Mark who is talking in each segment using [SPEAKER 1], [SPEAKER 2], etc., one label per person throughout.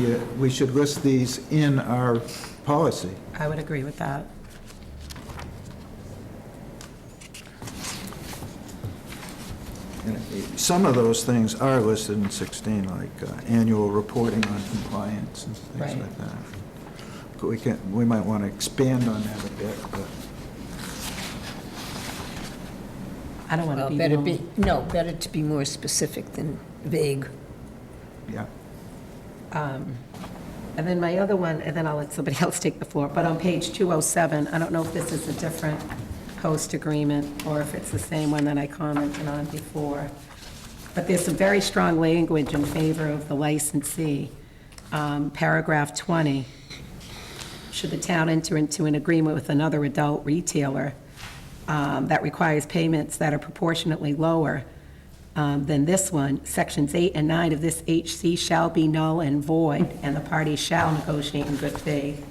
[SPEAKER 1] that we should list these in our policy.
[SPEAKER 2] I would agree with that.
[SPEAKER 1] And Some of those things are listed in 16, like uh, annual reporting on compliance and things
[SPEAKER 2] Right.
[SPEAKER 1] like that. But we can, we might want to expand on that a bit, but
[SPEAKER 2] I don't want to
[SPEAKER 3] Well,
[SPEAKER 2] be
[SPEAKER 3] better
[SPEAKER 2] the
[SPEAKER 3] be,
[SPEAKER 2] only.
[SPEAKER 3] no, better to be more specific than vague.
[SPEAKER 1] yeah.
[SPEAKER 2] um, And then my other one, and then I'll let somebody else take the floor, but on page 207, I don't know if this is a different host agreement or if it's the same one that I commented on before, but there's some very strong language in favor of the licensee. Um, Paragraph 20, should the town enter into an agreement with another adult retailer um, that requires payments that are proportionately lower um, than this one, Sections 8 and 9 of this HC shall be null and void, and the parties shall negotiate in good faith.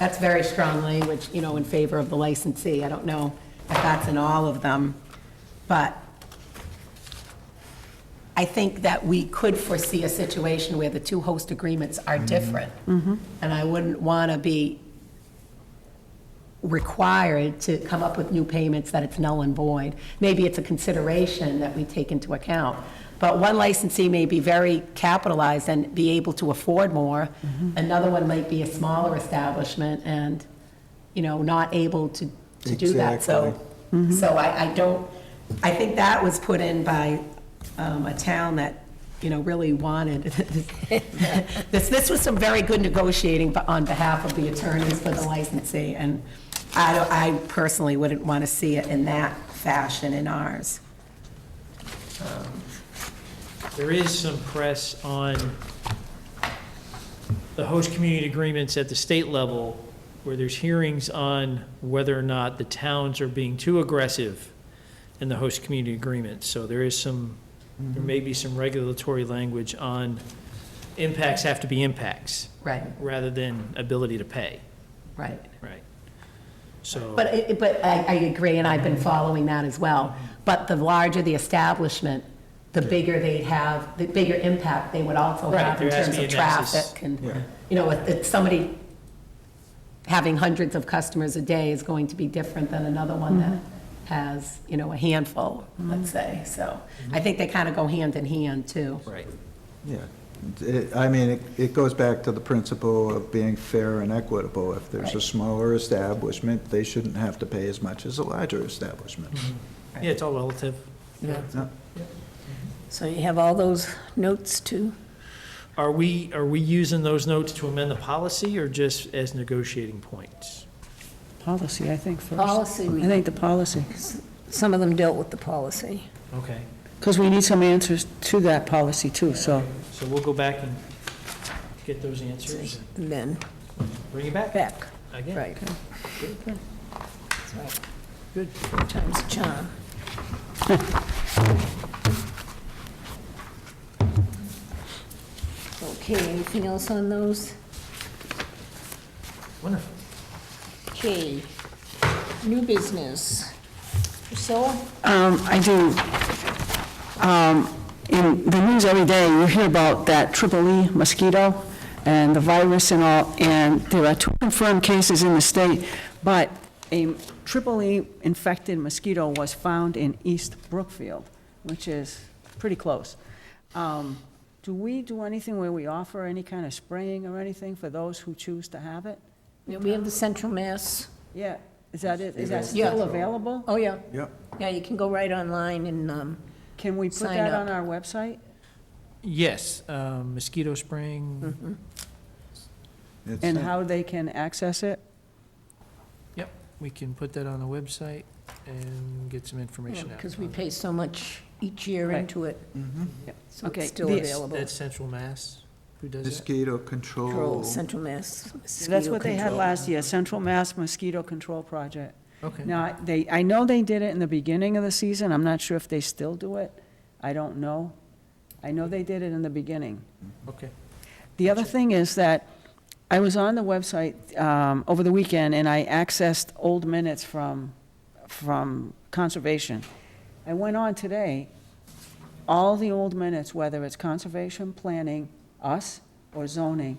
[SPEAKER 2] That's very strong language, you know, in favor of the licensee. I don't know if that's in all of them, but I think that we could foresee a situation where the two host agreements are different. And I wouldn't want to be required to come up with new payments that it's null and void. Maybe it's a consideration that we take into account. But one licensee may be very capitalized and be able to afford more. Another one might be a smaller establishment and, you know, not able to, to do that. So, so I, I don't, I think that was put in by um, a town that, you know, really wanted. This, this was some very good negotiating bu- on behalf of the attorneys for the licensee, and I, don't- I personally wouldn't want to see it in that fashion in ours.
[SPEAKER 4] There is some press on the host community agreements at the state level, where there's hearings on whether or not the towns are being too aggressive in the host community agreement. So there is some, there may be some regulatory language on impacts have to be impacts,
[SPEAKER 2] Right,
[SPEAKER 4] rather than ability to pay,
[SPEAKER 2] right.
[SPEAKER 4] right? So.
[SPEAKER 2] But, it- but I, I agree, and I've been following that as well. But the larger the establishment, the bigger they'd have, the bigger impact they would also
[SPEAKER 4] Right,
[SPEAKER 2] have in
[SPEAKER 4] there has
[SPEAKER 2] terms
[SPEAKER 4] to
[SPEAKER 2] of
[SPEAKER 4] be a nexus.
[SPEAKER 2] traffic and,
[SPEAKER 1] Yeah.
[SPEAKER 2] you know, if, if somebody having hundreds of customers a day is going to be different than another one that
[SPEAKER 4] Mm-hmm.
[SPEAKER 2] has, you know, a handful, let's say. So I think they kind of go hand in hand, too.
[SPEAKER 4] Right.
[SPEAKER 1] Yeah, It- I mean, it- it goes back to the principle of being fair and equitable. If there's a
[SPEAKER 2] Right.
[SPEAKER 1] smaller establishment, they shouldn't have to pay as much as a larger establishment.
[SPEAKER 4] Yeah, it's all relative.
[SPEAKER 1] No,
[SPEAKER 3] So you have all those notes too?
[SPEAKER 4] Are we, are we using those notes to amend the policy or just as negotiating points?
[SPEAKER 5] Policy, I think, first.
[SPEAKER 3] Policy, we-
[SPEAKER 5] I think the policy,
[SPEAKER 3] Some of them dealt with the policy.
[SPEAKER 4] Okay.
[SPEAKER 5] because we need some answers to that policy, too, so.
[SPEAKER 4] So we'll go back and get those answers and
[SPEAKER 3] And then
[SPEAKER 4] bring it back
[SPEAKER 3] back,
[SPEAKER 4] again.
[SPEAKER 3] right. That's right. Good. Times John. Okay, anything else on those?
[SPEAKER 4] Wonderful.
[SPEAKER 3] Okay, new business. Priscilla?
[SPEAKER 5] Um, I do. Um, In the news every day, you hear about that triple E mosquito and the virus and all, and there are two confirmed cases in the state, but a triple E infected mosquito was found in East Brookfield, which is pretty close. Um, Do we do anything where we offer any kind of spraying or anything for those who choose to have it?
[SPEAKER 3] Yeah, We have the Central Mass.
[SPEAKER 5] Yeah, is that it? Is that
[SPEAKER 3] Yeah.
[SPEAKER 5] still available?
[SPEAKER 3] Oh, yeah.
[SPEAKER 1] Yep.
[SPEAKER 3] Yeah, you can go right online and, um,
[SPEAKER 5] Can we put
[SPEAKER 3] Sign
[SPEAKER 5] that
[SPEAKER 3] up.
[SPEAKER 5] on our website?
[SPEAKER 4] Yes, um, mosquito
[SPEAKER 3] Hmm. mm-hmm.
[SPEAKER 4] spraying,
[SPEAKER 1] it's
[SPEAKER 5] And
[SPEAKER 1] not-
[SPEAKER 5] how they can access it?
[SPEAKER 4] we can put that on the website and get some information out.
[SPEAKER 3] because we pay so much each year
[SPEAKER 5] Right.
[SPEAKER 3] into it,
[SPEAKER 1] Mhm.
[SPEAKER 3] so
[SPEAKER 5] Okay,
[SPEAKER 3] it's still
[SPEAKER 5] this-
[SPEAKER 3] available.
[SPEAKER 4] That's Central Mass, who does that?
[SPEAKER 1] Mosquito
[SPEAKER 3] Control,
[SPEAKER 1] control.
[SPEAKER 3] Central Mass.
[SPEAKER 5] That's
[SPEAKER 3] mosquito
[SPEAKER 5] what they had
[SPEAKER 3] control.
[SPEAKER 5] last year, Central Mass Mosquito Control Project.
[SPEAKER 4] Okay.
[SPEAKER 5] Now, they, I know they did it in the beginning of the season, I'm not sure if they still do it, I don't know. I know they did it in the beginning.
[SPEAKER 4] Okay.
[SPEAKER 5] The other thing is that I was on the website um, over the weekend, and I accessed old minutes from, from Conservation. I went on today, all the old minutes, whether it's Conservation, Planning, us, or zoning,